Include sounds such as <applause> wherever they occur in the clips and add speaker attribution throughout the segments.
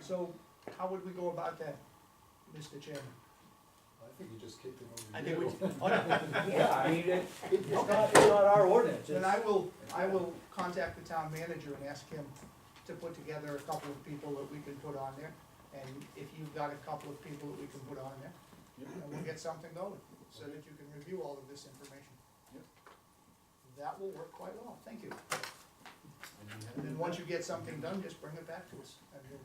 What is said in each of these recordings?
Speaker 1: So how would we go about that, Mr. Chairman?
Speaker 2: I think you just kicked it over.
Speaker 1: I
Speaker 2: to
Speaker 1: think we,
Speaker 2: you.
Speaker 1: oh, no,
Speaker 3: Yeah, I mean, it, it's not, it's not our ordinance,
Speaker 1: then
Speaker 3: it's,
Speaker 1: I will, I will contact the town manager and ask him to put together a couple of people that we can put on there. And if you've got a couple of people that we can put on there, and we'll get something going, so that you can review all of this information.
Speaker 4: Yep.
Speaker 1: That will work quite well, thank you.
Speaker 2: And you had-
Speaker 1: And then once you get something done, just bring it back to us, and then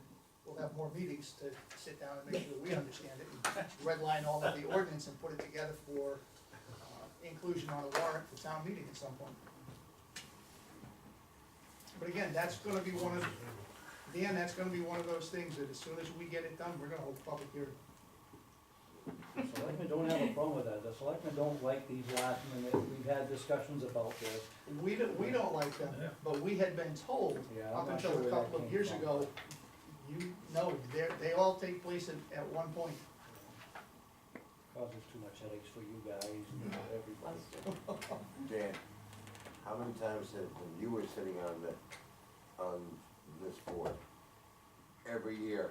Speaker 1: we'll have more meetings to sit down and make sure we understand it. and Redline all of the ordinance and put it together for uh, inclusion on a warrant for town meeting at some point. But again, that's gonna be one of, Dan, that's gonna be one of those things that as soon as we get it done, we're gonna hold a public hearing.
Speaker 3: the selectmen don't have a problem with that, the selectmen don't like these last minute, we've had discussions about this.
Speaker 1: We don't, we don't like them, but we had been told,
Speaker 3: Yeah, I'm
Speaker 1: up
Speaker 3: not
Speaker 1: until
Speaker 3: sure
Speaker 1: a
Speaker 3: where that
Speaker 1: couple of
Speaker 3: came
Speaker 1: years
Speaker 3: from.
Speaker 1: ago, you know, they're, they all take place at, at one point.
Speaker 3: Causes too much headaches for you guys and everybody.
Speaker 5: Dan, how many times have, when you were sitting on the, on this board, every year,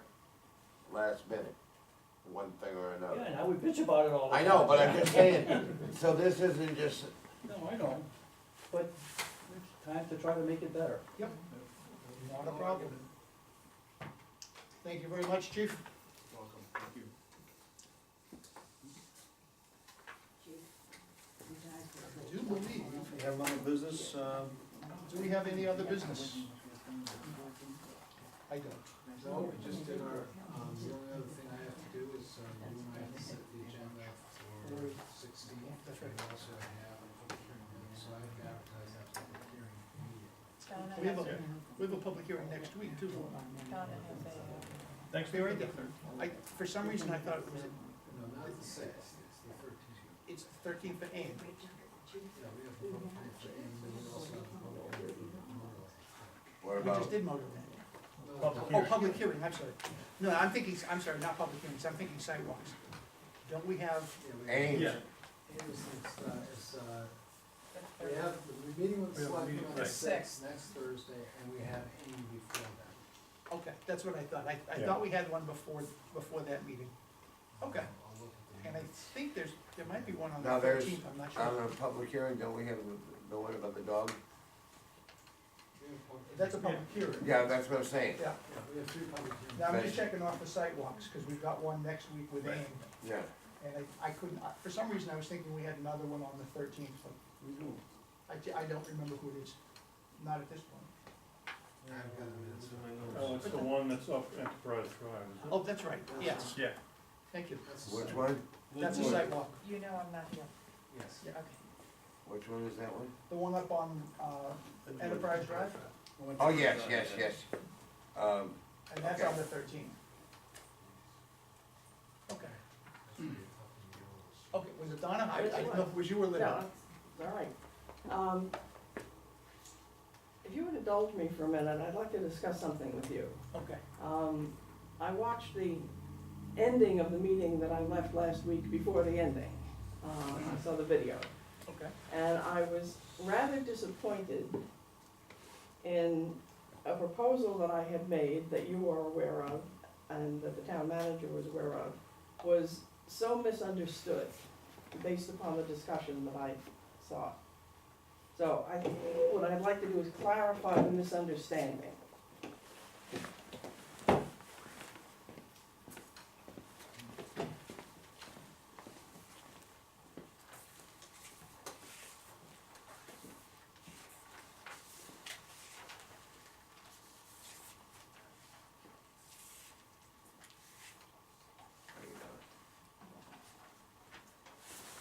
Speaker 5: last minute, one thing or
Speaker 3: Yeah,
Speaker 5: another?
Speaker 3: and I would bitch about it all the
Speaker 5: I
Speaker 3: time.
Speaker 5: know, but I'm just saying, so this isn't just,
Speaker 3: No, I know, but it's time to try to make it better.
Speaker 1: Yep.
Speaker 3: Not
Speaker 1: a problem. Thank you very much, chief.
Speaker 4: Welcome, thank you.
Speaker 1: Do believe,
Speaker 4: We have another business, um,
Speaker 1: do we have any other business? I don't.
Speaker 2: <laughs> No, we just did our, um, the only other thing I have to do is, um, you and I have to set the agenda for sixteen.
Speaker 1: That's right.
Speaker 2: And also I have a public hearing, so I have to advertise that public hearing immediately.
Speaker 1: We have a, we have a public hearing next week too.
Speaker 6: Thanks
Speaker 1: Be right there. I, for some reason, I thought it was,
Speaker 2: No, not the sixth, it's the thirteenth.
Speaker 1: it's thirteenth of AIM.
Speaker 2: Yeah, we have a public hearing for Ames, and we also have a public hearing for Memorial.
Speaker 5: what
Speaker 1: We just
Speaker 5: about,
Speaker 1: did motor that.
Speaker 2: No,
Speaker 6: Public
Speaker 1: Oh,
Speaker 6: hearing.
Speaker 1: public hearing, I'm sorry. No, I'm thinking, I'm sorry, not public hearings, I'm thinking sidewalks. Don't we have,
Speaker 2: yeah, we-
Speaker 5: Ames,
Speaker 6: Yeah.
Speaker 2: Ames is, uh, is, uh, We have, we're meeting with the
Speaker 6: We have a
Speaker 2: selectmen
Speaker 6: meeting,
Speaker 2: on the
Speaker 6: right.
Speaker 2: sixth, next Thursday, and we have Amy before that.
Speaker 1: okay, that's what I thought. I, I
Speaker 6: Yeah.
Speaker 1: thought we had one before, before that meeting. Okay.
Speaker 2: I'll look at the-
Speaker 1: And I think there's, there might be one on the
Speaker 5: Now, there's-
Speaker 1: thirteenth, I'm not
Speaker 5: on
Speaker 1: sure.
Speaker 5: a public hearing, don't we have the, the one about the dog?
Speaker 2: We have public-
Speaker 1: That's a public hearing.
Speaker 5: Yeah, that's what I'm saying,
Speaker 1: Yeah,
Speaker 2: Yeah, we have three public hearings.
Speaker 1: now I'm just
Speaker 5: Right.
Speaker 1: checking off the sidewalks, because we've got one next week with
Speaker 6: Right.
Speaker 1: AIM.
Speaker 5: yeah.
Speaker 1: And I, I couldn't, I- for some reason, I was thinking we had another one on the thirteenth, but
Speaker 3: We do.
Speaker 1: I, ca- I don't remember who it is, not at this point.
Speaker 2: I've got it, it's in my
Speaker 6: Oh,
Speaker 2: notes.
Speaker 6: it's the one that's up Enterprise Drive.
Speaker 1: Oh, that's right, yes,
Speaker 6: Yeah.
Speaker 1: thank you.
Speaker 2: That's the
Speaker 5: Which
Speaker 2: site.
Speaker 5: one?
Speaker 1: That's a sidewalk,
Speaker 7: You know I'm not here.
Speaker 2: Yes.
Speaker 1: Yeah.
Speaker 5: Which one is that one?
Speaker 1: the one up on, uh, Enterprise Drive,
Speaker 5: Oh, yes, yes, yes. Um,
Speaker 1: and that's on
Speaker 5: Okay.
Speaker 1: the thirteenth. Okay,
Speaker 2: That's where you're talking yours.
Speaker 1: okay, was it Donna? I, I didn't know, if it was you or Linda?
Speaker 7: Alright, um, if you would indulge me for a minute, I'd like to discuss something with you.
Speaker 1: Okay,
Speaker 7: Um, I watched the ending of the meeting that I left last week before the ending. Um, I saw the video,
Speaker 1: okay,
Speaker 7: and I was rather disappointed in a proposal that I had made that you are aware of, and that the town manager was aware of, was so misunderstood based upon the discussion that I saw. So I, what I'd like to do is clarify the misunderstanding.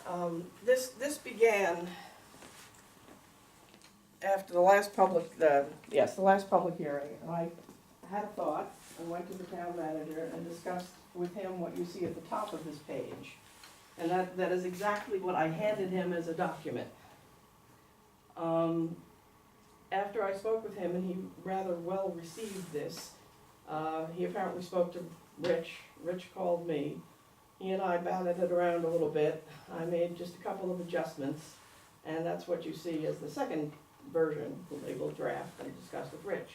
Speaker 7: Um, this, this began after the last public, the, yes, the last public hearing. And I had a thought and went to the town manager and discussed with him what you see at the top of this page. And that, that is exactly what I handed him as a document. Um, after I spoke with him and he rather well received this, uh, he apparently spoke to Rich, Rich called me. He and I batted it around a little bit I made just a couple of adjustments, and that's what you see as the second version, labeled draft, I discussed with Rich.